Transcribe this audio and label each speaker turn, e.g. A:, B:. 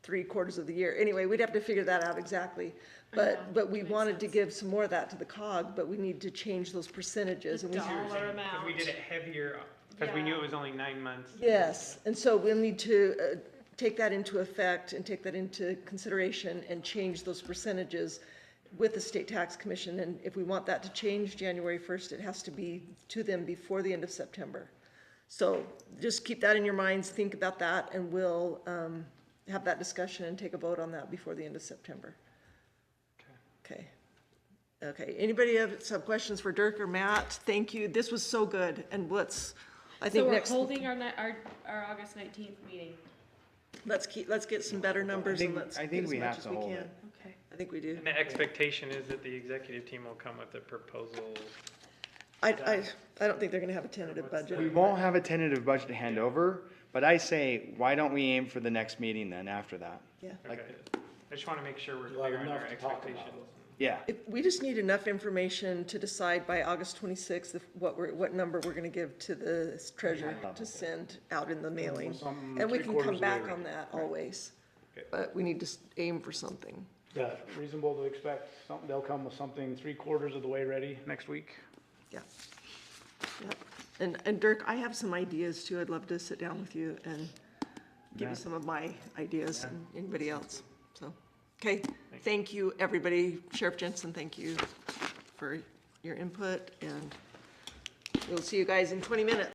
A: three quarters of the year. Anyway, we'd have to figure that out exactly. But, but we wanted to give some more of that to the cog, but we need to change those percentages. and we-
B: dollar
C: Because we
B: amount.
C: did it heavier, because we knew it was only nine months.
A: Yes, and so we'll need to uh, take that into effect and take that into consideration and change those percentages with the State Tax Commission. And if we want that to change January 1st, it has to be to them before the end of September. So just keep that in your minds, think about that, and we'll um, have that discussion and take a vote on that before the end of September. Okay. Okay, anybody have some questions for Dirk or Matt? Thank you, this was so good, and let's, I
B: So
A: think
B: we're
A: next.
B: holding our, ni- our, our August nineteenth meeting.
A: Let's keep, let's get some better numbers and
D: think-
A: let's
D: I
A: get
D: think
A: as
D: we
A: much
D: have
A: as
D: to
A: we
D: hold
A: can.
D: it.
B: Okay.
A: I think we do.
C: And the expectation is that the executive team will come with a proposal.
A: I, I, I don't think they're gonna have a tentative
D: We
A: budget.
D: won't have a tentative budget to hand over, but I say, why don't we aim for the next meeting then after that?
A: Yeah.
D: Like-
C: Okay. I just want to make sure we're
E: You'll have
C: clear on our
E: enough to talk about.
C: expectations.
D: Yeah,
A: If- We just need enough information to decide by August twenty-sixth if, what we're, what number we're gonna give to the treasurer to send out in the mailing.
E: Something
A: And we
E: three
A: can come
E: quarters
A: back
E: later.
A: on that always,
C: Okay.
A: but we need to s- aim for something.
E: Yeah, reasonable to expect something, they'll come with something three quarters of the way ready next week.
A: Yeah. Yep. And, and Dirk, I have some ideas too. I'd love to sit down with you and give you
D: Yeah.
A: some of my ideas and anybody else, so. Okay, thank you, everybody. Sheriff Jensen, thank you for your input and we'll see you guys in twenty minutes.